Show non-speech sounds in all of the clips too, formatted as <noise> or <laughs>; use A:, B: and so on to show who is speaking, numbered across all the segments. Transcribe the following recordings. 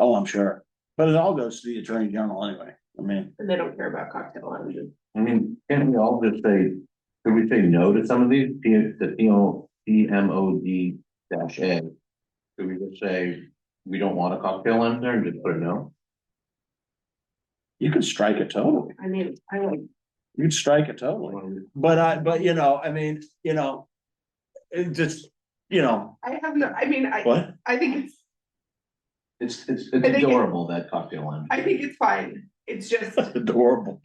A: Oh, I'm sure. But it all goes to the attorney general anyway. I mean,
B: And they don't care about cocktail lounges.
C: I mean, can't we all just say, could we say no to some of these, P, the P O, P M O D dash A? Could we just say, we don't want a cocktail in there and just put a no?
A: you could strike it totally.
B: I mean, I like,
A: You could strike it totally. But I, but you know, I mean, you know, it just, you know,
B: I have no, I mean, I,
A: what? <laughs>
B: I think it's,
C: It's, it's,
B: think
C: it's
B: it-
C: adorable, that cocktail lounge.
B: I think it's fine. It's
A: <laughs>
B: just,
A: Adorable.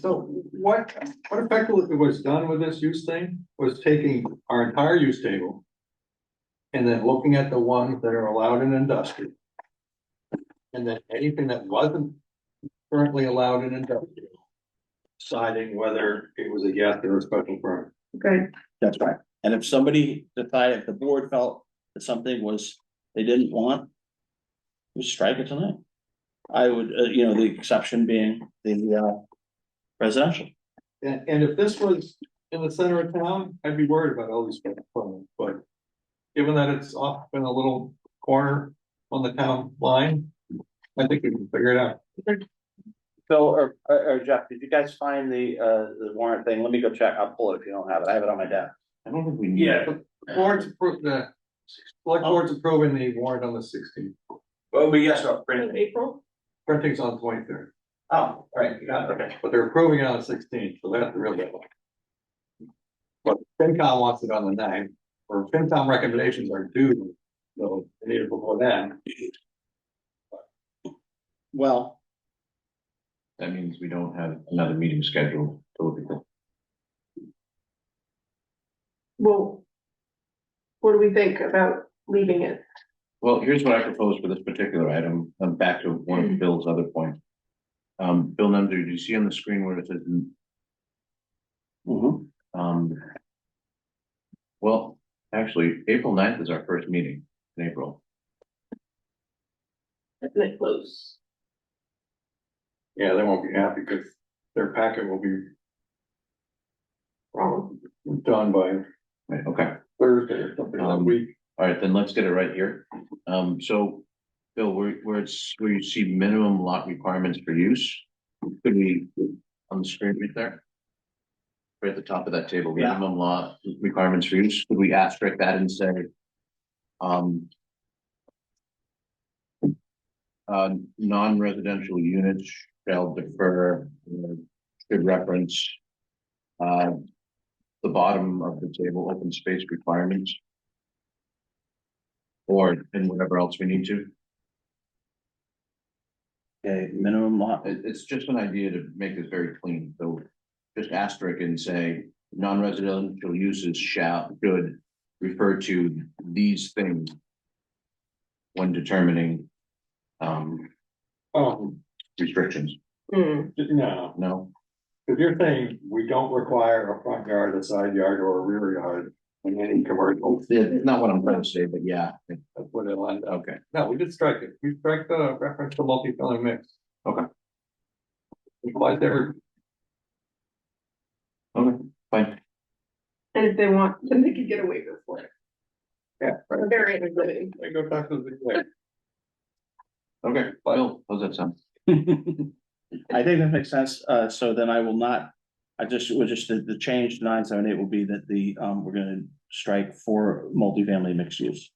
D: So what, what effectively was done with this use thing was taking our entire use table. And then looking at the ones that are allowed in industrial. And then anything that wasn't currently allowed in industrial. Deciding whether it was a yes or a special permit.
B: okay,
A: That's right. And if somebody decided, if the board felt that something was, they didn't want. We strike it tonight. I would, uh, you know, the exception being the, uh, residential.
D: And, and if this was in the center of town, I'd be worried about all these special permits, but. Given that it's off in a little corner on the town line, I think we can figure it out.
A: Phil or, or or Jeff, did you guys find the, uh, the warrant thing? Let me go check. I'll pull it if you don't have it. I have it on my desk.
C: I don't think we need.
E: Yeah.
D: Board's approved, the select board's approving the warrant on the sixteenth,
E: Well, we yes, our
B: end of April,
D: printing's on twenty-third,
E: Oh, all right, yeah, okay.
D: but they're approving it on the sixteenth, so that's the real deadline. But FinCom wants it on the ninth, or FinCom recommendations are due, so they need it before then.
A: Well,
C: That means we don't have another meeting scheduled till we
B: well. What do we think about leaving it?
C: Well, here's what I propose for this particular item, I'm back to one
B: Mm-hmm.
C: of Bill's other points. Um, Bill Nemser, do you see on the screen where it says,
A: mhm.
C: um. Well, actually, April 9th is our first meeting in April,
B: Isn't it close?
D: Yeah, they won't be happy because their packet will be
B: Wrong.
D: done by
C: right, okay,
D: Thursday or something that
C: Um,
D: week.
C: all right, then let's get it right here. Um, so, Bill, where, where it's, where you see minimum lot requirements for use, could we, on the screen right there? Right at the top of that table,
A: Yeah.
C: minimum lot requirements for use, could we asterisk that and say? Um. Uh, non-residential units shall defer, uh, should reference. Uh, the bottom of the table, open space requirements. Or in whatever else we need to,
A: Okay, minimum lot.
C: It- it's just an idea to make this very clean, so. Just asterisk and say, non-residential uses shall, should refer to these things. When determining. Um,
D: Oh,
C: restrictions,
B: Hmm,
D: no,
C: no,
D: because you're saying we don't require a front yard, a side yard, or a rear yard in any commercial,
C: Yeah, it's not what I'm trying to say, but yeah,
D: that's what it'll end up.
C: okay,
D: No, we did strike it. We strike the reference to multi-family mix.
C: Okay.
D: Applies there,
C: okay, fine,
B: and if they want, then they could get a waiver for it.
D: yeah, right.
B: They're in a living.
D: They go back to the, like,
C: okay, Bill, how's that sound?
A: I think that makes sense, uh, so then I will not, I just, we're just, the, the change to nine seven eight will be that the, um, we're gonna strike for multifamily mixed use.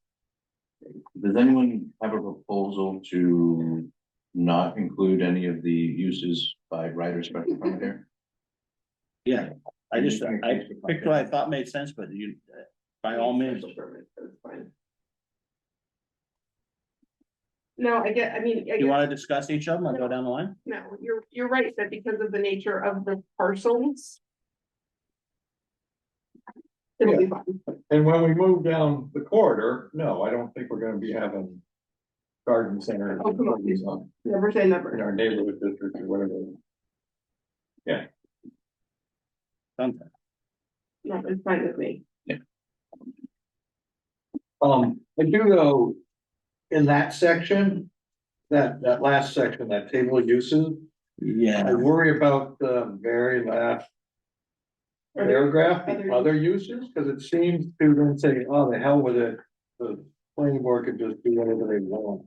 C: Does anyone have a proposal to not include any of the uses by right or special permit here?
A: Yeah, I just, I picked what I thought made sense, but you, uh, by all means,
B: Special permit, that's fine. No, I get, I mean, I
A: you
B: guess,
A: wanna discuss each of them and go down the line?
B: no, you're, you're right, that because of the nature of the parcels. It'll be fine.
D: and when we move down the corridor, no, I don't think we're gonna be having. Garden center.
B: Oh, come on.
D: In
B: Never say never.
D: our neighborhood district or whatever.
A: Done.
B: No, it's fine with me.
D: Um, I do know. In that section. That, that last section, that table of uses, I
A: Yeah,
D: worry about the very last. Paragraph,
B: other-
D: the other uses, because it seems to then say, oh, the hell with it, the planning board could just do whatever they want.